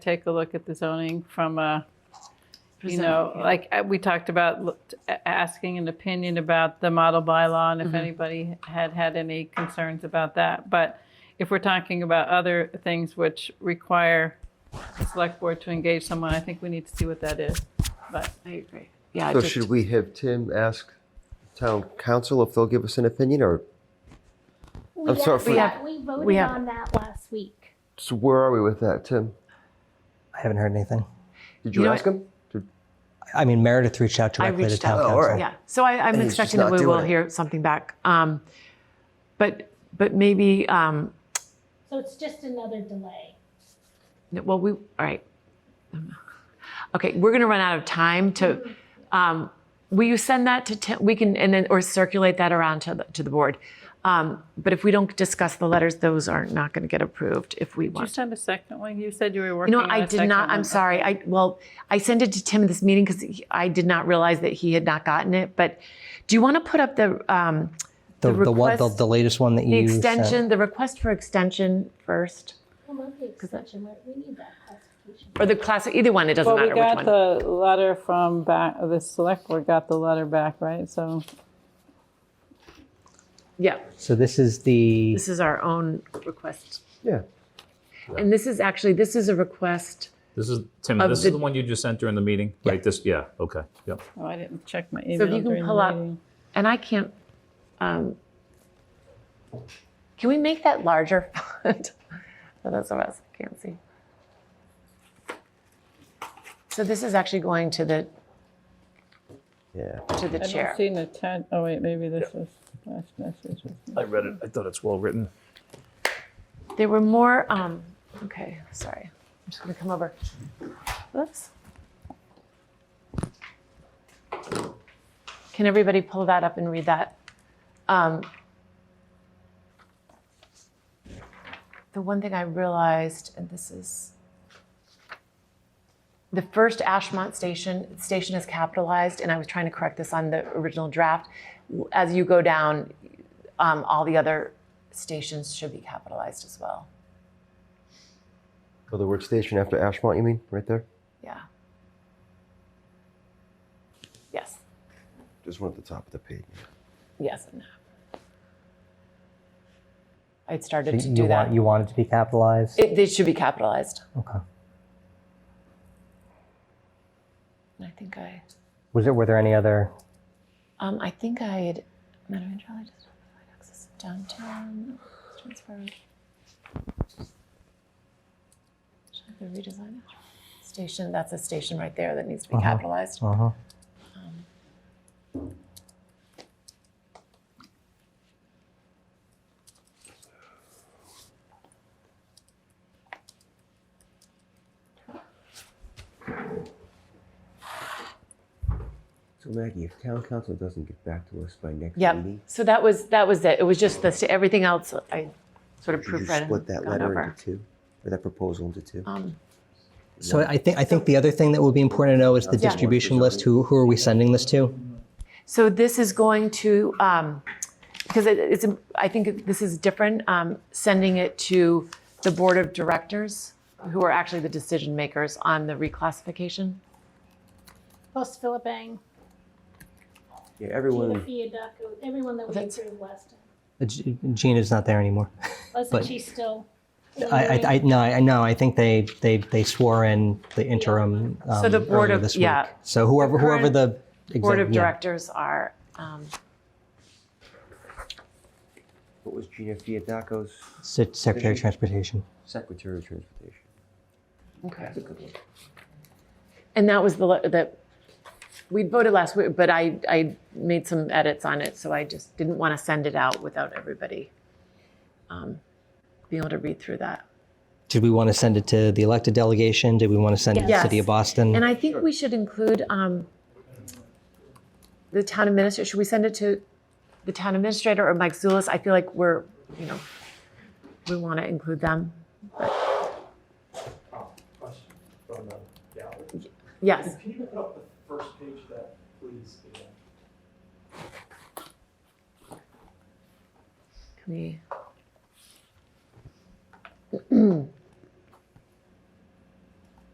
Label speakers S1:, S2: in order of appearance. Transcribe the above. S1: take a look at the zoning from a, you
S2: Present,
S1: know,
S2: yeah.
S1: like uh, we talked about look- a- asking an opinion about the model bylaw and if
S2: Mhm.
S1: anybody had had any concerns about that. But if we're talking about other things which require the select board to engage someone, I think we need to see what that is. But
S2: I agree. Yeah, I
S3: So
S2: just,
S3: should we have Tim ask town council if they'll give us an opinion or,
S4: We
S3: I'm sorry for-
S4: actually-
S3: We
S2: have-
S4: We voted
S2: we have-
S4: on that last week.
S3: so where are we with that, Tim?
S5: I haven't heard anything.
S3: Did you,
S2: You know
S3: ask him? Did-
S5: I mean, Meredith reached out
S2: I
S5: directly to
S2: reached out.
S5: town
S3: Oh, all
S5: council.
S3: right.
S2: yeah. So I, I'm
S3: And he's
S2: expecting
S3: just
S2: that
S3: not
S2: we will
S3: doing it.
S2: hear something back. Um, but but maybe um,
S4: So it's just another delay.
S2: No, Well, we, all right. Okay, we're gonna run out of time to, um, will you send that to, Tim? we can, and then, or circulate that around to the, to the board. Um, but if we don't discuss the letters, those are not gonna get approved if we
S1: did you
S2: want.
S1: send a second one? You said you were
S2: You
S1: working
S2: know,
S1: on
S2: I
S1: a
S2: did
S1: second
S2: not,
S1: one.
S2: I'm sorry, I, well, I sent it to Tim this meeting because I did not realize that he had not gotten it, but do you wanna put up the, um,
S5: The,
S2: The
S5: the, one, the,
S2: request-
S5: the latest one that
S2: the
S5: you Sent.
S2: extension, the request for extension first?
S4: I love the extension, we- we need that clarification.
S2: Or the class, either one, it doesn't
S1: Well, we
S2: matter which
S1: got
S2: one.
S1: the letter from back, the select board got the letter back, right? So
S2: Yeah,
S5: So this is the
S2: this is our own request.
S3: Yeah.
S2: And this is actually, this is a request.
S6: This is, Tim,
S2: Of
S6: this
S2: the-
S6: is the one you just sent during the meeting, right? This, yeah, okay, yep.
S1: oh, I didn't check my
S2: So
S1: email
S2: if you
S1: during
S2: can
S1: the
S2: pull up,
S1: meeting.
S2: and I can't, um, can we make that larger font? For those of us who can't see. So this is actually going to the,
S3: Yeah.
S2: to the
S1: I
S2: chair.
S1: don't see an atten- oh wait, maybe this was last message.
S6: I read it, I thought it's well-written.
S2: There were more, um, okay, sorry. I'm just gonna come over. Oops. Can everybody pull that up and read that? Um, the one thing I realized, and this is the first Ashmont station, station is capitalized, and I was trying to correct this on the original draft. As you go down, um, all the other stations should be capitalized as well.
S3: Oh, the word station after Ashmont, you mean, right there?
S2: Yeah. Yes.
S3: Just one at the top of the page.
S2: Yes. and no. I'd started to
S5: you,
S2: do that.
S5: want you want it to be capitalized.
S2: It, they should be capitalized.
S5: okay.
S2: And I think I,
S5: Was it? Were there any other?
S2: um, I think I had, Madam Andrelli just provide access to downtown, transfer. Should I have to redesign it? Station, that's a station right there that needs to be
S5: Uh-huh.
S2: capitalized.
S5: Uh huh.
S3: So Maggie, if town council doesn't get back to us by next
S2: Yep. So that was, that was it. It was just this, everything else I sort of proofread and gone over.
S3: two, or that proposal into two?
S2: Um,
S5: So I think I think the other thing that would be important to know is the
S3: Yeah.
S5: distribution list. Who who are we sending this to?
S2: So this is going to, um, because it, it's, a- I think this is different, um, sending it to the board of directors, who are actually the decision makers on the reclassification.
S4: Plus Philip
S3: Yeah,
S4: Ang, Gina
S3: everyone.
S4: Fiadaco, everyone that we
S2: That's-
S4: approved last time.
S5: Uh, G- Gina's not there anymore.
S4: Wasn't
S5: But-
S4: she still?
S5: I I, I no I know I think they they they swore in the interim. Um,
S2: So the board
S5: earlier
S2: of-
S5: this
S2: yeah.
S5: Week. So whoever whoever
S2: current
S5: the
S2: Board
S5: exec-
S2: of
S5: yeah.
S2: directors are, um,
S3: What was Gina Fiadaco's
S5: Se- Secretary of Transportation.
S3: secretary of transportation?
S2: okay.
S3: good one.
S2: And that was the, le- that, we voted last week, but I, I made some edits on it, so I just didn't want to send it out without everybody, um, being able to read through that.
S5: Did we want to send it to the elected delegation? Did we want to send it to the
S2: Yes.
S5: city of Boston?
S2: And I think we should include um, the town administrator, should we send it to the town administrator or Mike Zulus? I feel like we're, you know, we want to include them.
S7: question from the gallery.
S2: Yes,
S7: Can you put up the first page of that, please? Ian?
S2: can we?